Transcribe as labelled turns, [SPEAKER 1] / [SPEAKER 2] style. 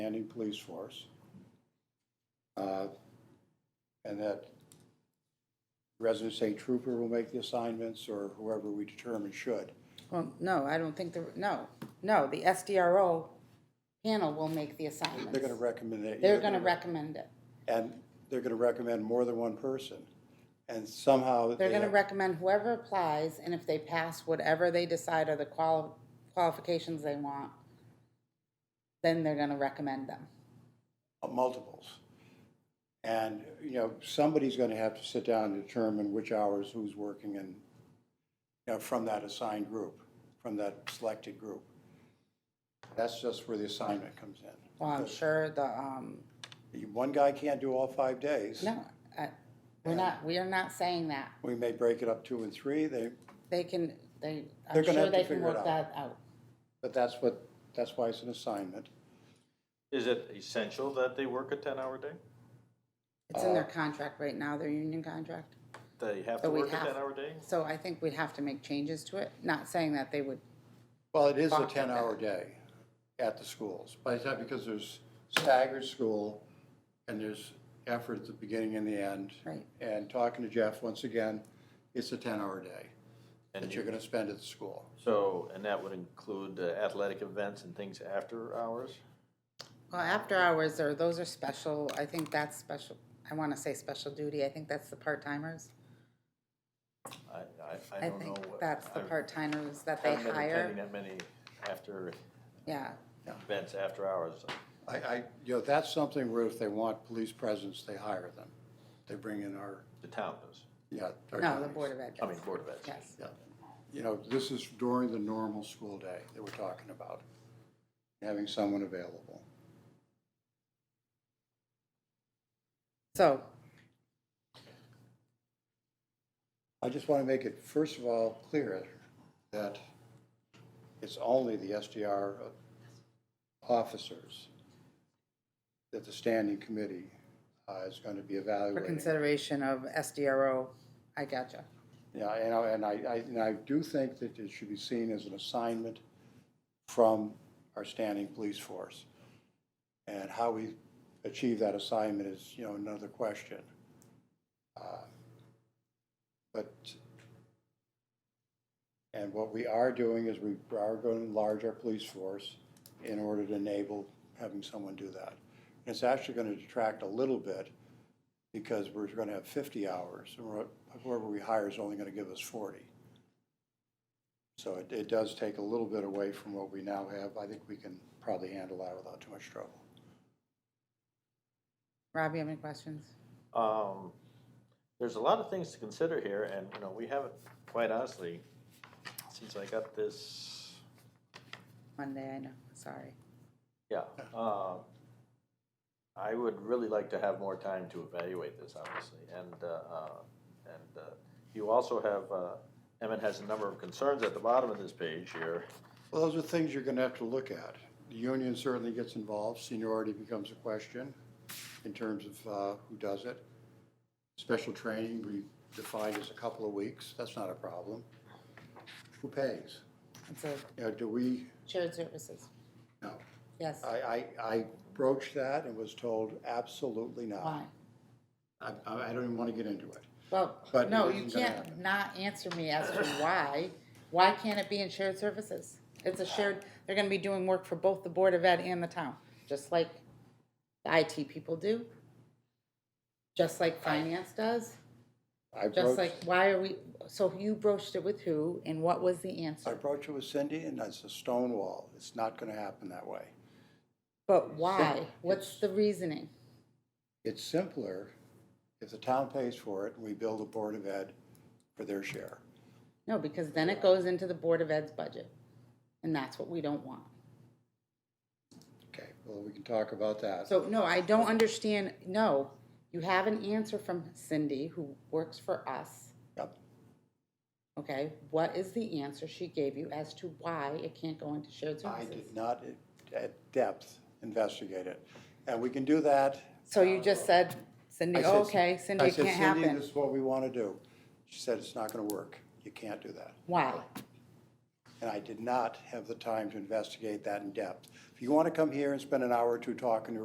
[SPEAKER 1] standing police force. Uh, And that resident state trooper will make the assignments, or whoever we determine should.
[SPEAKER 2] Well, no, I don't think the, no, no, the SDRO panel will make the assignments.
[SPEAKER 1] They're gonna recommend that.
[SPEAKER 2] They're gonna recommend it.
[SPEAKER 1] And they're gonna recommend more than one person. And somehow. they
[SPEAKER 2] They're gonna
[SPEAKER 1] have-
[SPEAKER 2] recommend whoever applies, and if they pass whatever they decide are the quali- qualifications they want, then they're gonna recommend them.
[SPEAKER 1] multiples. And, you know, somebody's gonna have to sit down and determine which hours who's working and, you know, from that assigned group, from that selected group. That's just where the assignment comes in.
[SPEAKER 2] Well, I'm sure the, um,
[SPEAKER 1] You- One guy can't do all five days.
[SPEAKER 2] no, I, we're not, we are not saying that.
[SPEAKER 1] We may break it up two and three, they,
[SPEAKER 2] They can, they,
[SPEAKER 1] They're
[SPEAKER 2] I'm
[SPEAKER 1] gonna
[SPEAKER 2] sure
[SPEAKER 1] have to
[SPEAKER 2] they can
[SPEAKER 1] figure it
[SPEAKER 2] work that out.
[SPEAKER 1] but that's what, that's why it's an assignment.
[SPEAKER 3] Is it essential that they work a ten-hour day?
[SPEAKER 2] It's
[SPEAKER 1] Uh,
[SPEAKER 2] in their contract right now, their union contract.
[SPEAKER 3] They have to
[SPEAKER 2] So we
[SPEAKER 3] work a
[SPEAKER 2] have-
[SPEAKER 3] ten-hour day?
[SPEAKER 2] So I think we'd have to make changes to it, not saying that they would,
[SPEAKER 1] Well, it is a
[SPEAKER 2] Box of
[SPEAKER 1] ten-hour
[SPEAKER 2] that.
[SPEAKER 1] day at the schools, by the time, because there's staggered school, and there's effort at the beginning and the end.
[SPEAKER 2] Right.
[SPEAKER 1] And talking to Jeff, once again, it's a ten-hour day that
[SPEAKER 3] And
[SPEAKER 1] you're
[SPEAKER 3] you,
[SPEAKER 1] gonna spend at the school.
[SPEAKER 3] so, and that would include uh, athletic events and things after hours?
[SPEAKER 2] well, after hours or those are special, I think that's special. I wanna say special duty, I think that's the part timers.
[SPEAKER 3] I, I, I
[SPEAKER 2] I
[SPEAKER 3] don't know.
[SPEAKER 2] think
[SPEAKER 3] what-
[SPEAKER 2] that's the
[SPEAKER 3] I
[SPEAKER 2] part timers that they
[SPEAKER 3] haven't been attending
[SPEAKER 2] hire.
[SPEAKER 3] that many after,
[SPEAKER 2] Yeah,
[SPEAKER 3] events after hours.
[SPEAKER 1] I, I, you know, that's something where if they want police presence, they hire them. They bring in our,
[SPEAKER 3] The town does,
[SPEAKER 1] yeah. our
[SPEAKER 2] no, the
[SPEAKER 1] counties.
[SPEAKER 2] Board of Ed.
[SPEAKER 3] I mean, Board of Ed.
[SPEAKER 2] Yes,
[SPEAKER 1] Yeah. You know, this is during the normal school day that we're talking about, having someone available.
[SPEAKER 2] so,
[SPEAKER 1] I just want to make it, first of all, clear that it's only the SDR officers that the standing committee uh, is going to be
[SPEAKER 2] for
[SPEAKER 1] evaluating.
[SPEAKER 2] consideration of SDRO, I gotcha.
[SPEAKER 1] Yeah, and I, and I- I, and I do think that it should be seen as an assignment from our standing police force. And how we achieve that assignment is, you know, another question. Uh, But, and what we are doing is we are going to enlarge our police force in order to enable having someone do that. And it's actually going to detract a little bit because we're gonna have fifty hours, and we're- whoever we hire is only gonna give us forty. So it, it does take a little bit away from what we now have. I think we can probably handle that without too much trouble.
[SPEAKER 2] Rob, you have any questions?
[SPEAKER 3] Um, there's a lot of things to consider here, and, you know, we haven't, quite honestly, since I got this
[SPEAKER 2] Monday, I know, sorry.
[SPEAKER 3] Yeah, um, I would really like to have more time to evaluate this, obviously, and, uh, uh, and, uh, you also have, uh, Emmett has a number of concerns at the bottom of this page here.
[SPEAKER 1] Well, those are things you're gonna have to look at. The union certainly gets involved, seniority becomes a question in terms of, uh, who does it. Special training, we defined as a couple of weeks, that's not a problem. Who pays?
[SPEAKER 2] It's a
[SPEAKER 1] You know, do we,
[SPEAKER 2] shared services,
[SPEAKER 1] no,
[SPEAKER 2] yes,
[SPEAKER 1] I, uh, I, I broached that and was told absolutely
[SPEAKER 2] why?
[SPEAKER 1] not. I, I I don't even want to get into it.
[SPEAKER 2] Well,
[SPEAKER 1] But
[SPEAKER 2] no,
[SPEAKER 1] it
[SPEAKER 2] you
[SPEAKER 1] isn't gonna
[SPEAKER 2] can't
[SPEAKER 1] happen.
[SPEAKER 2] not answer me as to why. Why can't it be in shared services? It's a shared, they're gonna be doing work for both the Board of Ed and the town, just like the IT people do. Just like finance does,
[SPEAKER 1] I
[SPEAKER 2] just
[SPEAKER 1] broached,
[SPEAKER 2] like, why are we, so you broached it with who and what was the
[SPEAKER 1] I
[SPEAKER 2] answer?
[SPEAKER 1] broached it with Cindy and that's a stone wall. It's not going to happen that way.
[SPEAKER 2] But why? What's the reasoning?
[SPEAKER 1] It's simpler if the town pays for it and we build a Board of Ed for their share.
[SPEAKER 2] No, because then it goes into the Board of Ed's budget, and that's what we don't want.
[SPEAKER 1] Okay, well, we can talk about that.
[SPEAKER 2] So, no, I don't understand, no, you have an answer from Cindy, who works for us,
[SPEAKER 1] Yep.
[SPEAKER 2] okay? What is the answer she gave you as to why it can't go into shared
[SPEAKER 1] I
[SPEAKER 2] services?
[SPEAKER 1] did not at depth investigate it. And we can do that.
[SPEAKER 2] So you just said,
[SPEAKER 1] I
[SPEAKER 2] Cindy,
[SPEAKER 1] said-
[SPEAKER 2] okay, Cindy,
[SPEAKER 1] I
[SPEAKER 2] it
[SPEAKER 1] said,
[SPEAKER 2] can't
[SPEAKER 1] Cindy,
[SPEAKER 2] happen.
[SPEAKER 1] this is what we want to do. She said, it's not going to work. You can't do that.
[SPEAKER 2] Why?
[SPEAKER 1] and I did not have the time to investigate that in depth. If you want to come here and spend an hour or two talking to